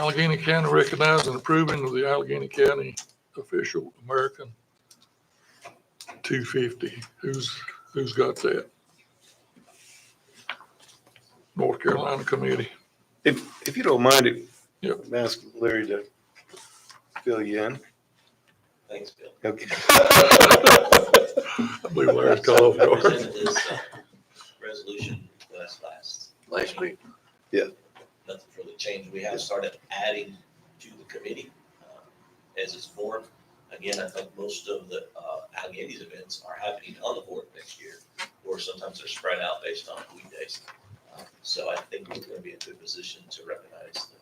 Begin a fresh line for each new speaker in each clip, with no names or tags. Allegheny County recognizing and approving of the Allegheny County official American two fifty. Who's, who's got that? North Carolina Committee.
If, if you don't mind it,
Yep.
I'm asking Larry to fill you in.
Thanks, Bill.
Okay.
I believe Larry's called off
We
guard.
Presented this uh, resolution last, last.
Last week.
Yeah.
Nothing's really changed. We have started adding to the committee uh, as it's formed. Again, I think most of the uh, Allegheny's events are happening on the board next year, or sometimes they're spread out based on weekdays. Uh, So I think we're going to be in a good position to recognize the,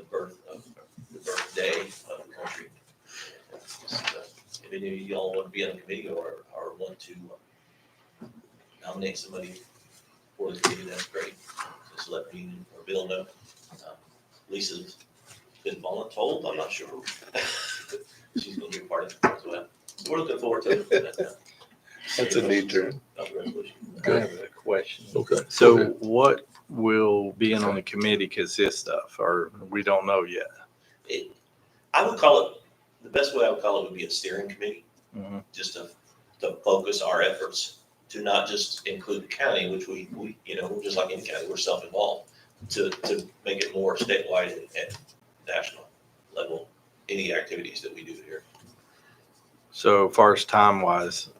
the birth of, the birthday of the country. Just, uh, If any of y'all want to be on the committee or, or want to uh, nominate somebody for the committee, that's great. Just let me or Bill know. Uh, Lisa's been voluntold, I'm not sure. She's gonna be a part of it as well. We're looking forward to it.
That's a neat term.
Of the resolution.
I have a question.
Okay.
So what will being on the committee consist of, or we don't know yet?
It- I would call it, the best way I would call it would be a steering committee.
Mhm.
just to, to focus our efforts to not just include the county, which we, we, you know, just like any county, we're self-involved, to, to make it more statewide and, and national level, any activities that we do here.
So far as time wise,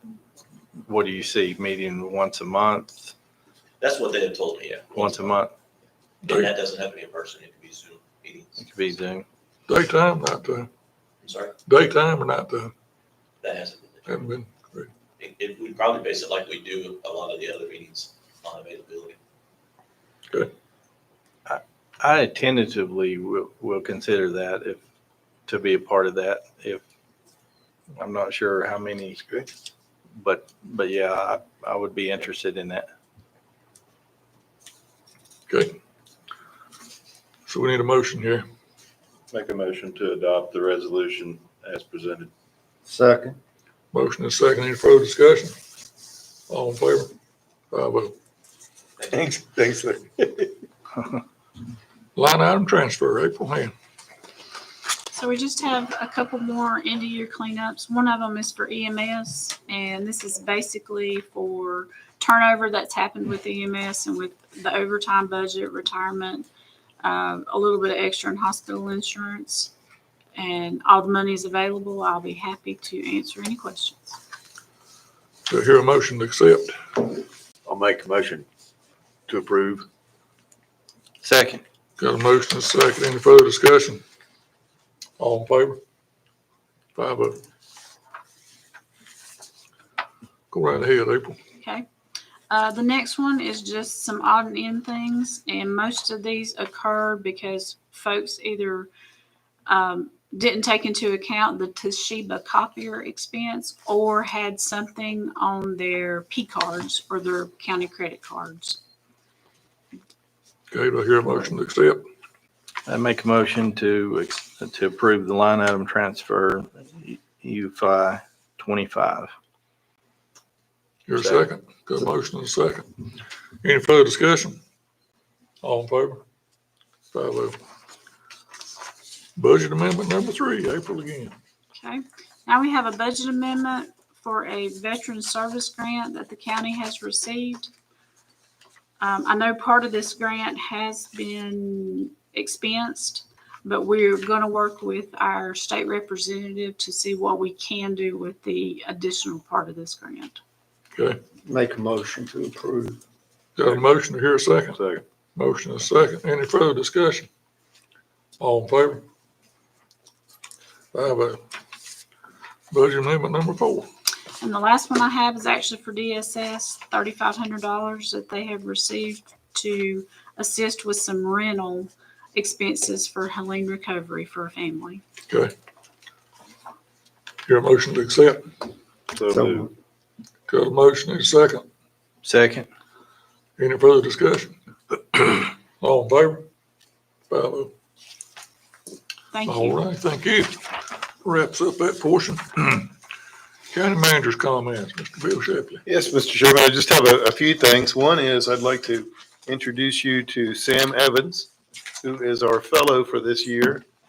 what do you see, meeting once a month,
That's what they have told me, yeah.
once a month?
And that doesn't have to be in person, it could be Zoom meetings.
It could be Zoom.
Daytime, nighttime,
I'm sorry,
daytime or nighttime,
that hasn't been,
haven't been, great.
it, it, we'd probably base it like we do a lot of the other meetings on availability.
I tentatively will, will consider that if, to be a part of that, if, I'm not sure how many,
That's great.
but, but yeah, I, I would be interested in that.
okay. So we need a motion here.
Make a motion to adopt the resolution as presented.
Second.
Motion is second, any further discussion? All in favor? Five oh.
Thanks, thanks, Larry.
Line item transfer, April Hand.
So we just have a couple more end of year cleanups. One of them is for EMS, and this is basically for turnover that's happened with EMS and with the overtime budget, retirement, um, a little bit of extra in hospital insurance, and all the money is available. I'll be happy to answer any questions.
Do I hear a motion to accept?
I'll make a motion to approve.
Second.
Got a motion and a second. Any further discussion? All in favor? Five oh. Go right ahead, April.
Okay. Uh, the next one is just some odd and end things, and most of these occur because folks either um, didn't take into account the Toshiba copier expense or had something on their P cards or their county credit cards.
Okay, do I hear a motion to accept?
I make a motion to, ex- to approve the line item transfer UFI 25.
Your
Second.
second. Got a motion and a second. Any further discussion? All in favor? Five oh. Budget amendment number three, April again.
Okay. Now we have a budget amendment for a veteran service grant that the county has received. Um, I know part of this grant has been expensed, but we're going to work with our state representative to see what we can do with the additional part of this grant.
Okay,
Make a motion to approve.
got a motion to hear a second?
Second.
Motion is second. Any further discussion? All in favor? Five oh. Budget amendment number four.
And the last one I have is actually for DSS, thirty-five hundred dollars that they have received to assist with some rental expenses for Helene recovery for a family.
Okay. Your motion to accept.
So
So
moved.
Got a motion is second.
Second.
Any further discussion? All in favor? Five oh.
Thank
All
you.
right, thank you. Wraps up that portion. County manager's comments, Mr. Bill Shapley.
Yes, Mr. Chairman, I just have a, a few things. One is I'd like to introduce you to Sam Evans. who is our fellow for this year.